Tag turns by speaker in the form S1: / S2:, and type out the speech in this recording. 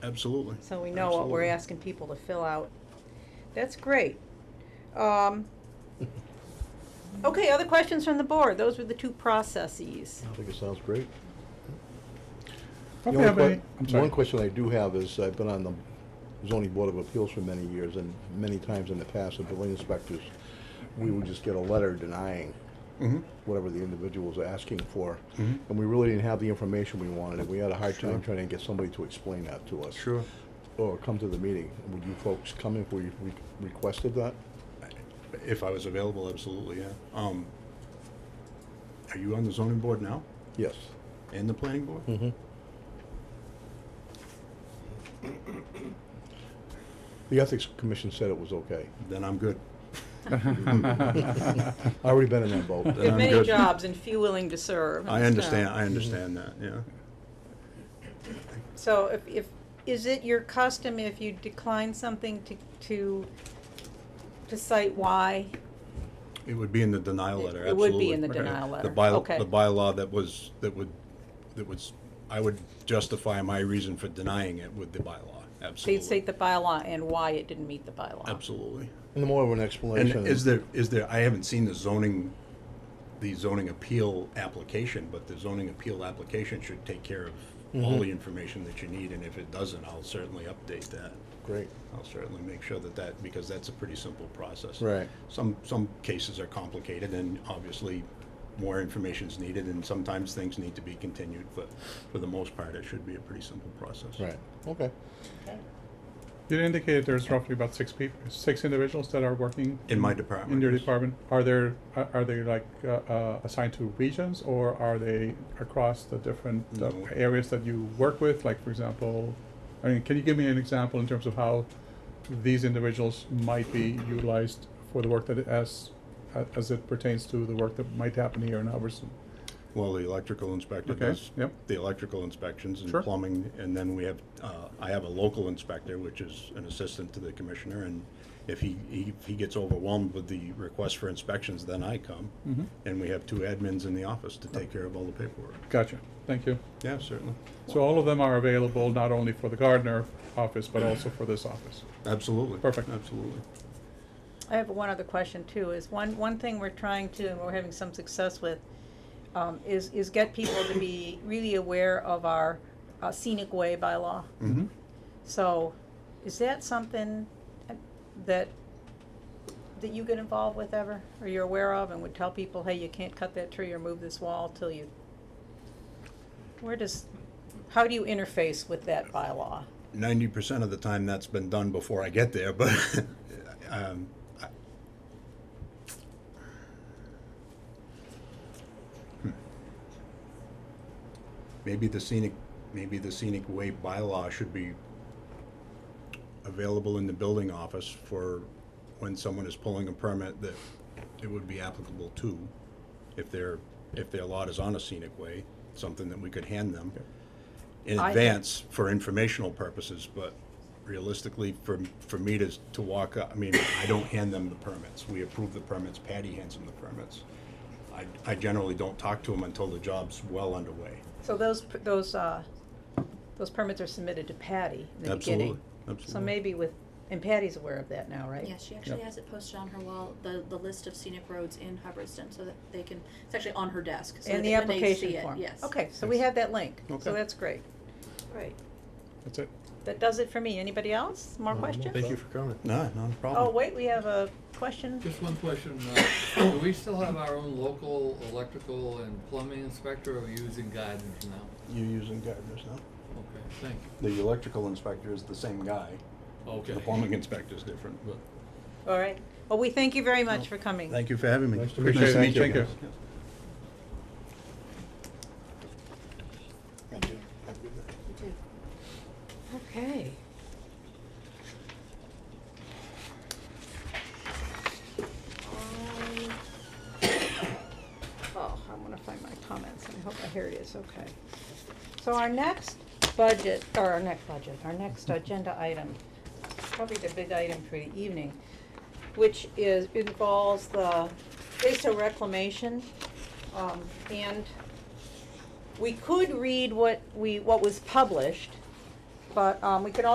S1: Absolutely.
S2: So we know what we're asking people to fill out. That's great. Um, okay, other questions from the board? Those were the two processes.
S3: I think it sounds great.
S4: Don't
S3: The
S4: we
S3: only
S4: have any,
S3: que-
S4: I'm
S3: One
S4: sorry.
S3: question I do have is, I've been on the zoning board of appeals for many years, and many times in the past, the building inspectors, we would just get a letter denying
S1: Mhm.
S3: whatever the individual's asking for.
S4: Mm-hmm.
S1: Mhm.
S3: And we really didn't have the information we wanted, and we had a hard time trying to get somebody to explain that to us.
S1: Sure.
S3: Or come to the meeting. Would you folks come if we we requested that?
S1: Mm-hmm. If I was available, absolutely, yeah. Um, are you on the zoning board now
S3: Yes.
S1: and the planning board?
S3: Mm-hmm. The Ethics Commission said it was okay.
S1: Then I'm good.
S3: I've already been in that boat.
S2: We have
S1: I'm
S2: many
S1: good.
S2: jobs and few willing to serve.
S1: I
S2: That's, uh,
S1: understand, I understand that, yeah.
S2: So if, if, is it your custom if you decline something to, to, to cite why?
S1: It would be in the denial
S2: It-
S1: letter,
S2: it
S1: absolutely.
S2: would be in the denial
S1: The
S2: letter.
S1: bylaw-
S2: Okay.
S1: The bylaw that was, that would, that was, I would justify my reason for denying it with the bylaw,
S2: So you'd
S1: absolutely.
S2: cite the bylaw and why it didn't meet the bylaw.
S1: Absolutely.
S3: And the more of an
S1: And
S3: explanation.
S1: is there, is there, I haven't seen the zoning, the zoning appeal application, but the zoning appeal application should take care of
S3: Mm-hmm.
S1: all the information that you need, and if it doesn't, I'll certainly update that.
S3: Great.
S1: I'll certainly make sure that that, because that's a pretty simple process.
S3: Right.
S1: Some, some cases are complicated, and obviously, more information is needed, and sometimes things need to be continued, but for the most part, it should be a pretty simple process.
S3: Right. Okay.
S4: You indicated there's roughly about six people, six individuals that are working.
S1: In my department,
S4: In your
S1: yes.
S4: department. Are there, are are they like uh, uh, assigned to regions or are they across the different uh,
S1: No.
S4: areas that you work with? Like, for example, I mean, can you give me an example in terms of how these individuals might be utilized for the work that it- as, a- as it pertains to the work that might happen here in Hubbardson?
S1: Well, the electrical inspector
S4: Okay,
S1: does
S4: yep.
S1: the electrical inspections and
S4: Sure.
S1: plumbing, and then we have, uh, I have a local inspector, which is an assistant to the commissioner, and if he, he, if he gets overwhelmed with the request for inspections, then I come.
S4: Mhm.
S1: And we have two admins in the office to take care of all the paperwork.
S4: Gotcha. Thank you.
S1: Yeah, certainly,
S4: So all of them are available not only for the Gardner office, but also for this office.
S1: absolutely.
S4: Perfect.
S1: Absolutely.
S2: I have one other question too, is one, one thing we're trying to, and we're having some success with, um, is, is get people to be really aware of our uh, scenic way bylaw.
S1: Mm-hmm.
S2: So, is that something that, that you get involved with ever, or you're aware of, and would tell people, hey, you can't cut that tree or move this wall till you? Where does, how do you interface with that bylaw?
S1: ninety percent of the time that's been done before I get there, but um, I, Hmm. maybe the scenic, maybe the scenic way bylaw should be available in the building office for when someone is pulling a permit that it would be applicable to if their if their lot is on a scenic way, something that we could hand them in
S2: I-
S1: advance for informational purposes, but realistically, for, for me to, to walk up, I mean, I don't hand them the permits. We approve the permits, Patty hands them the permits. I, I generally don't talk to them until the job's well underway.
S2: So those, p- those, uh, those permits are submitted to Patty in the beginning.
S1: Absolutely, absolutely.
S2: So maybe with, and Patty's aware of that now, right?
S5: Yeah, she actually has it posted on her wall, the, the list of scenic roads in Hubbardston, so that they can, it's actually on her desk. so
S2: And
S5: that
S2: the
S5: when they see
S2: application
S5: it,
S2: form?
S5: Yes.
S2: Okay, so we have that link, so
S1: Okay.
S2: that's great. Great.
S4: That's it.
S2: That does it for me. Anybody else? More questions?
S6: Thank you for coming.
S1: No, not a problem.
S2: Oh, wait, we have a question.
S6: Just one question, uh, do we still have our own local electrical and plumbing inspector, or are we using Gardner's now?
S1: You're using gardeners now?
S6: Okay, thank you.
S1: The electrical inspector is the same guy.
S6: Okay.
S1: The plumbing inspector is different.
S6: But-
S2: All right. Well, we thank you very much for coming.
S1: Thank you for having me.
S3: Nice to
S4: meet you. Appreciate it. Thank
S1: guys.
S5: Thank you. You too.
S2: Okay. Um, Oh, I'm gonna find my comments, I hope I, here it is, okay. So our next budget, or our next budget, our next agenda item, probably the big item for the evening, which is, involves the Baso reclamation, um, and we could read what we, what was published, But, um, we could